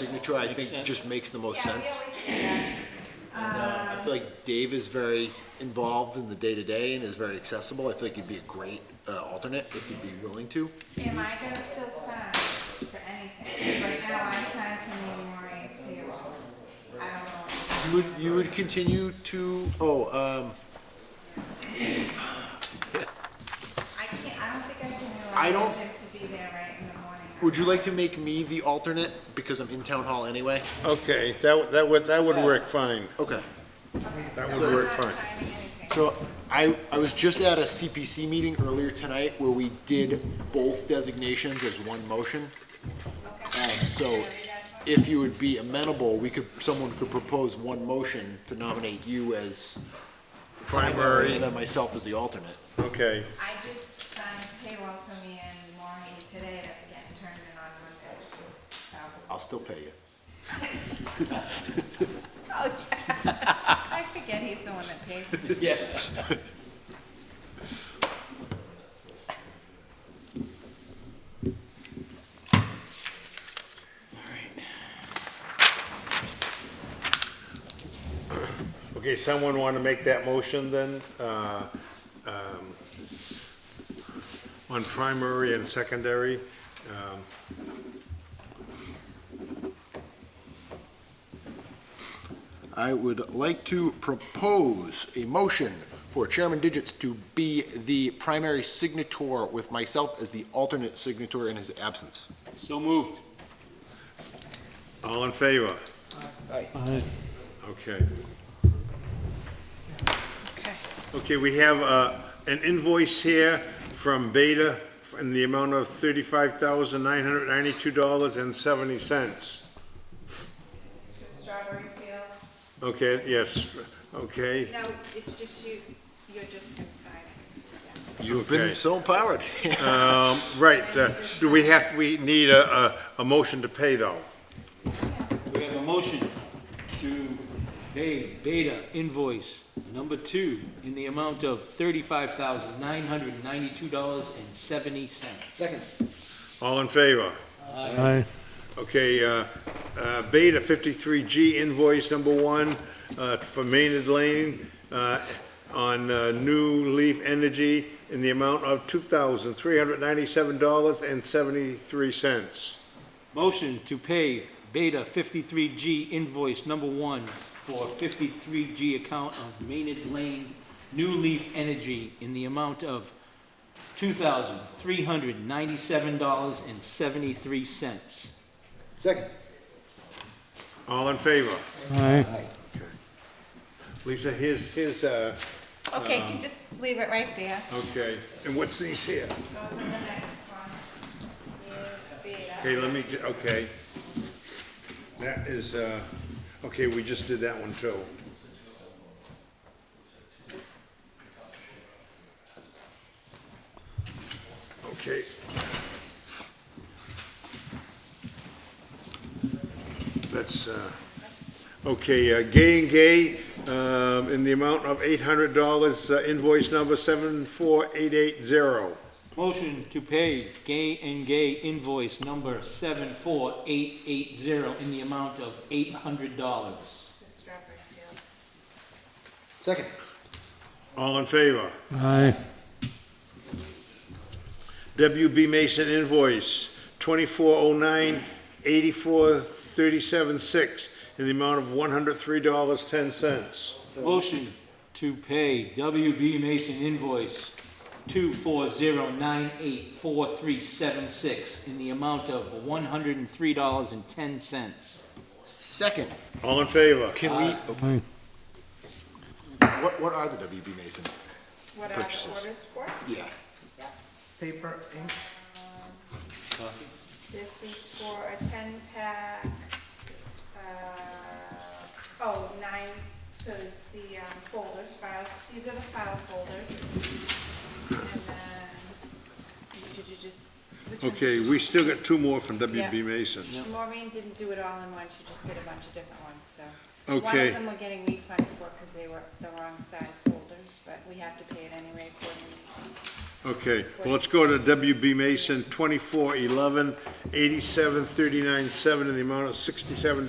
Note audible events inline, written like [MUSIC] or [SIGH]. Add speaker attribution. Speaker 1: signature, I
Speaker 2: Makes
Speaker 1: think,
Speaker 2: sense.
Speaker 1: just makes the most
Speaker 3: Yeah, we
Speaker 1: sense.
Speaker 3: always do that.
Speaker 1: And, uh, I feel like Dave is very involved in the day-to-day and is very accessible. I feel like he'd be a great uh, alternate if he'd be willing to.
Speaker 3: Am I gonna still sign for anything? Right now, I sign for the memorials payroll. I don't know.
Speaker 1: You would, you would continue to, oh, um,
Speaker 3: I can't, I don't think I can allow
Speaker 1: I don't-
Speaker 3: them to be there right in the morning.
Speaker 1: would you like to make me the alternate because I'm in town hall anyway?
Speaker 4: Okay, that, that would, that would work fine.
Speaker 1: Okay.
Speaker 4: That
Speaker 3: So
Speaker 4: would work
Speaker 3: I'm
Speaker 4: fine.
Speaker 3: not signing anything.
Speaker 1: So I, I was just at a CPC meeting earlier tonight where we did both designations as one motion. Um,
Speaker 3: Okay.
Speaker 1: so if you would be amenable, we could, someone could propose one motion to nominate you as primary
Speaker 4: Primary,
Speaker 1: and then myself as the alternate.
Speaker 4: okay.
Speaker 3: I just signed payroll for me and Maureen today that's getting turned in on Monday, so.
Speaker 1: I'll still pay you.
Speaker 3: Oh, yes. I forget he's the one that pays me.
Speaker 2: Yes.
Speaker 4: Okay, someone want to make that motion then? uh, um, On primary and secondary? um,
Speaker 1: I would like to propose a motion for Chairman Digits to be the primary signator with myself as the alternate signator in his absence.
Speaker 2: So moved.
Speaker 4: All in favor?
Speaker 2: Aye.
Speaker 4: Okay.
Speaker 3: Okay.
Speaker 4: Okay, we have uh, an invoice here from Beta in the amount of $35,992.70.
Speaker 3: Just Strawberry Fields.
Speaker 4: Okay, yes, okay.
Speaker 3: No, it's just you, you're just gonna sign it.
Speaker 1: You've been
Speaker 4: Okay.
Speaker 1: so empowered.
Speaker 4: Um, Right, uh, do we have, we need a, a- a motion to pay though?
Speaker 2: We have a motion to pay Beta invoice number two in the amount of thirty-five thousand, nine hundred and ninety-two dollars and seventy cents. Second.
Speaker 4: All in favor?
Speaker 5: Aye.
Speaker 4: Okay, uh, uh, Beta 53G invoice number one uh, for Maynard Lane uh, on uh, New Leaf Energy in the amount of $2,397.73.
Speaker 2: Motion to pay Beta fifty-three G invoice number one for fifty-three G account of Maynard Lane New Leaf Energy in the amount of two thousand, three hundred and ninety-seven dollars and seventy-three cents.
Speaker 1: Second.
Speaker 4: All in favor?
Speaker 5: Aye.
Speaker 4: Lisa, here's, here's, uh,
Speaker 1: Um,
Speaker 3: Okay, you can just leave it right there.
Speaker 4: okay, and what's these here?
Speaker 3: Goes in the next one. Is Beta.
Speaker 4: Okay, let me, ju- okay. That is, uh, okay, we just did that one too. Okay. That's, uh, okay, uh, Gay and Gay, um, in the amount of eight hundred dollars, uh, invoice number seven four eight eight zero.
Speaker 2: Motion to pay Gay and Gay invoice number seven four eight eight zero in the amount of eight hundred dollars.
Speaker 3: Just Strawberry Fields.
Speaker 1: Second.
Speaker 4: All in favor?
Speaker 5: Aye.
Speaker 4: WB Mason invoice, twenty-four oh nine, eighty-four, thirty-seven, six, in the amount of one hundred three dollars, ten cents.
Speaker 2: Motion to pay WB Mason invoice two four zero nine eight four three seven six in the amount of one hundred and three dollars and ten cents.
Speaker 1: [LAUGHS] Second.
Speaker 4: All in favor?
Speaker 1: Can we,
Speaker 5: Aye.
Speaker 1: what, what are the WB Mason?
Speaker 3: What are the
Speaker 1: Purchases.
Speaker 3: orders for?
Speaker 1: Yeah.
Speaker 6: paper, ink,
Speaker 3: This is for a ten pack, uh, oh, nine, so it's the um, folders, file, these are the file folders. And then, did you just? which one?
Speaker 4: Okay, we still got two more from WB
Speaker 3: Yeah.
Speaker 4: Mason.
Speaker 3: Maureen didn't do it all in one, she just did a bunch of different ones, so. One
Speaker 4: Okay.
Speaker 3: of them we're getting refunded for because they were the wrong size folders, but we have to pay it anyway according
Speaker 4: Okay, well, let's go to WB Mason, 2411, 87397, in the amount of sixty-seven